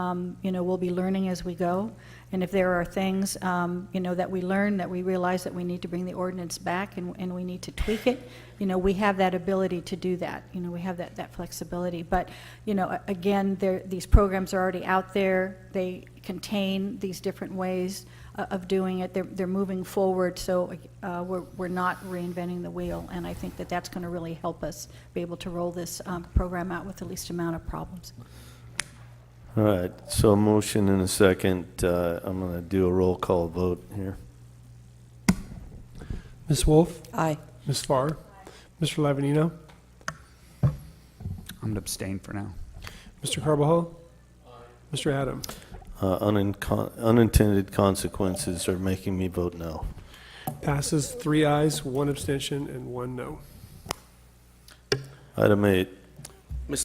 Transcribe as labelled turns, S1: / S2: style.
S1: Um, You know, we'll be learning as we go, and if there are things, um, you know, that we learn, that we realize that we need to bring the ordinance back and and we need to tweak it, you know, we have that ability to do that, you know, we have that that flexibility. But, you know, a- again, there, these programs are already out there, they contain these different ways o- of doing it, they're they're moving forward, so uh, we're we're not reinventing the wheel, and I think that that's going to really help us be able to roll this um, program out with the least amount of problems.
S2: All right, so a motion and a second. Uh, I'm going to do a roll call vote here.
S3: Ms. Wolf?
S4: Aye.
S3: Ms. Farr? Mr. Lavanino?
S5: I'm gonna abstain for now.
S3: Mr. Carbajal? Mr. Adam?
S2: Uh, unincon- Unintended consequences are making me vote no.
S3: Passes three ayes, one abstention, and one no.
S2: Item eight,